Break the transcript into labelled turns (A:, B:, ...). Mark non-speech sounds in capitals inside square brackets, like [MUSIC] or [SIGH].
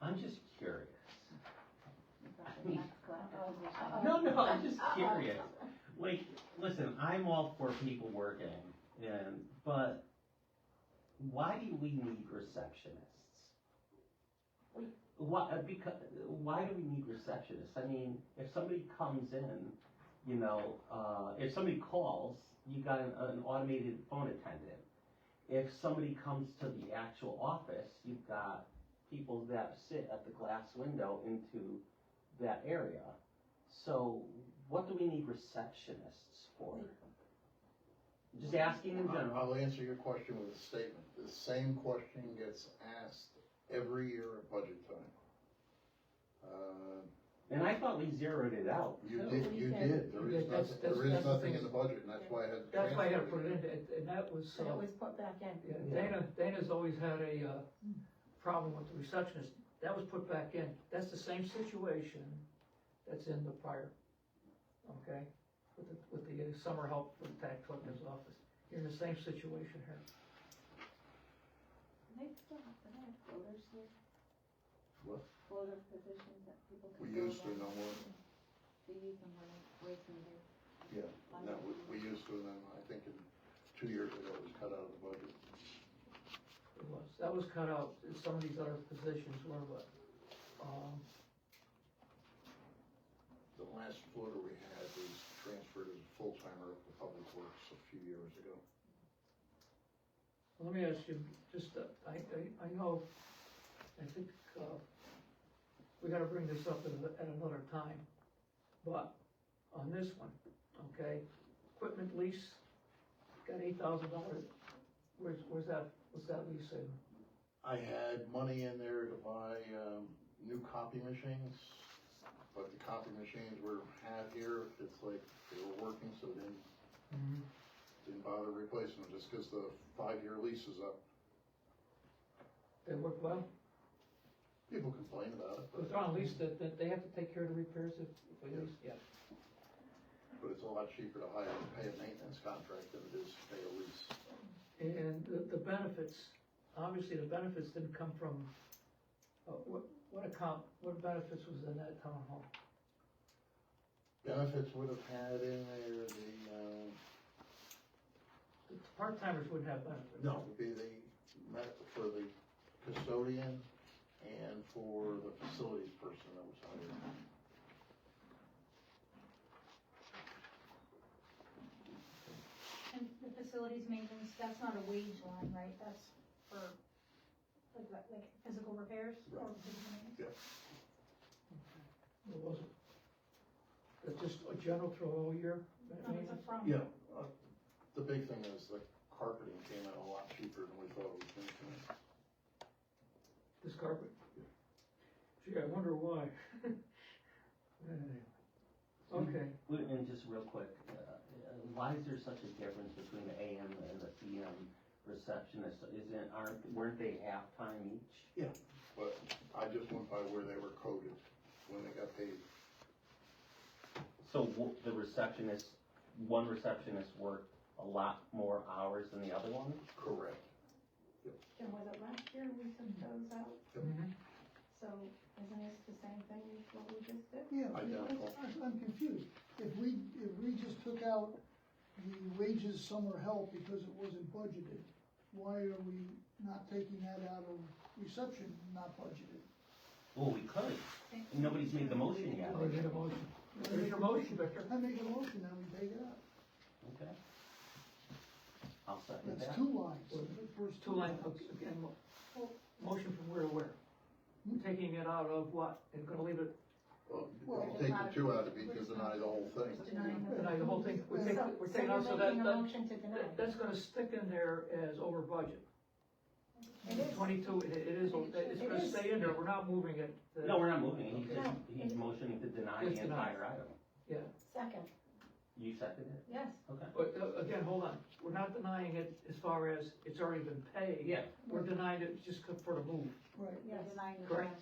A: I'm just curious.
B: Uh-oh.
A: [LAUGHS] No, no, I'm just curious. Like, listen, I'm all for people working, and, but why do we need receptionists?
B: We-
A: Why, because, why do we need receptionists? I mean, if somebody comes in, you know, uh, if somebody calls, you got an, an automated phone attendant. If somebody comes to the actual office, you've got people that sit at the glass window into that area. So what do we need receptionists for? Just asking in
C: I-
A: general.
C: I'll answer your question with a statement. The same question gets asked every year at budget time. Uh,
A: And I thought we zeroed it out.
C: You
A: too.
C: did, you did. There is
D: Yeah, that's-
C: nothing, there
D: that's- that's
C: is
D: the
C: nothing in
D: thing.
C: the budget, and that's why I had. to
D: That's why I had to
C: transfer
D: put it in, and- and that was,
B: So it
D: uh,
B: was put back in.
D: yeah, Dana, Dana's always had a, uh, problem with the receptionist, that was put back in, that's the same situation that's in the prior, okay? With the, with the uh, summer help from the tax collector's office, you're in the same situation here.
B: They still have to have floaters here.
C: What?
B: Floater positions that people
C: We
B: can. go
C: used to,
B: around.
C: no more.
B: They use them when it's way too near.
C: No, we, we used to, and then I think in two years ago, it was cut out of the budget.
D: It was, that was cut out, some of these other positions were, but, um,
C: The last floater we had was transferred as a full-timer up to Public Works a few years ago.
D: let me ask you, just, uh, I, I, I know, I think, uh, we gotta bring this up at, a- at another time, but on this one, okay, equipment lease, got eight thousand dollars, where's, where's that, what's that lease in?
C: I had money in there to buy, um, new copy machines, but the copy machines were had here, it's like, they were working, so they didn't, didn't bother replacing them, just because the five-year lease is up.
D: They work well,
C: People complain about it,
D: it's
C: but,
D: on lease, that, that they have to take care of the repairs if, if we lease, yeah.
C: but it's a lot cheaper to hire and pay a maintenance contract than it is to pay a lease.
D: And the, the benefits, obviously the benefits didn't come from, uh, what, what account, what benefits was in that town hall?
C: Benefits would have had in there the, um,
D: The Part timers wouldn't have benefits.
C: No, would be the, met for the custodian and for the facilities person that was hired.
E: And the facilities maintenance, that's not a wage line, right? That's for, like, what, like physical repairs or physical maintenance?
D: It wasn't. That's just a general throw all year, I
E: No,
D: mean,
E: it's a from.
C: Yeah, uh, the big thing is the carpeting came out a lot cheaper than we thought it was gonna come out.
D: this carpet. Gee, I wonder why. [LAUGHS] Anyway. Okay,
A: Wait, And just real quick, uh, uh, why is there such a difference between the AM and the PM receptionist? Isn't, aren't, weren't they halftime each?
C: But I just went by where they were coded when they got paid.
A: So w- the receptionist, one receptionist worked a lot more hours than the other one?
C: Correct.
B: And was it last year we took those out?
D: Mhm.
B: So isn't this the same thing as what we just did?
F: Yeah,
C: I
F: but
C: doubt it.
F: I- I'm confused. If we, if we just took out the wages summer help because it wasn't budgeted, why are we not taking that out of reception, not budgeted?
A: Well, we could. Nobody's made the motion yet.
D: I need a motion. I need a motion, Victor.
F: I make a motion that we take it out.
A: Okay. I'll second that.
F: That's two lines. First
D: Two line, okay, again, mo-
E: Well-
D: motion from where to where?
F: Hmm?
D: Taking it out of what, and gonna leave it,
C: Well, if
F: Well,
C: you take the two out, it'd be to deny the whole thing.
B: Denying the.
D: deny the whole thing, we're taking,
B: So-
D: we're taking out, so
B: So you're
D: that,
B: making a
D: that,
B: motion to deny.
D: that- that's gonna stick in there as over budget.
B: It is.
D: Twenty-two, it, it is, o- it's
B: It
D: gonna
B: is.
D: stay in there, we're not moving it. uh,
A: No, we're not moving. He's just,
B: No.
A: he's motioning to deny
D: Just
A: the
D: deny.
A: entire item.
B: Second,
A: You seconded it?
B: yes.
A: Okay.
D: But, uh, again, hold on, we're not denying it as far as it's already been paid.
A: Yeah.
D: We're denying it just for the move.
F: Right.
B: Yes.
E: Denying the
D: Correct.
E: wage.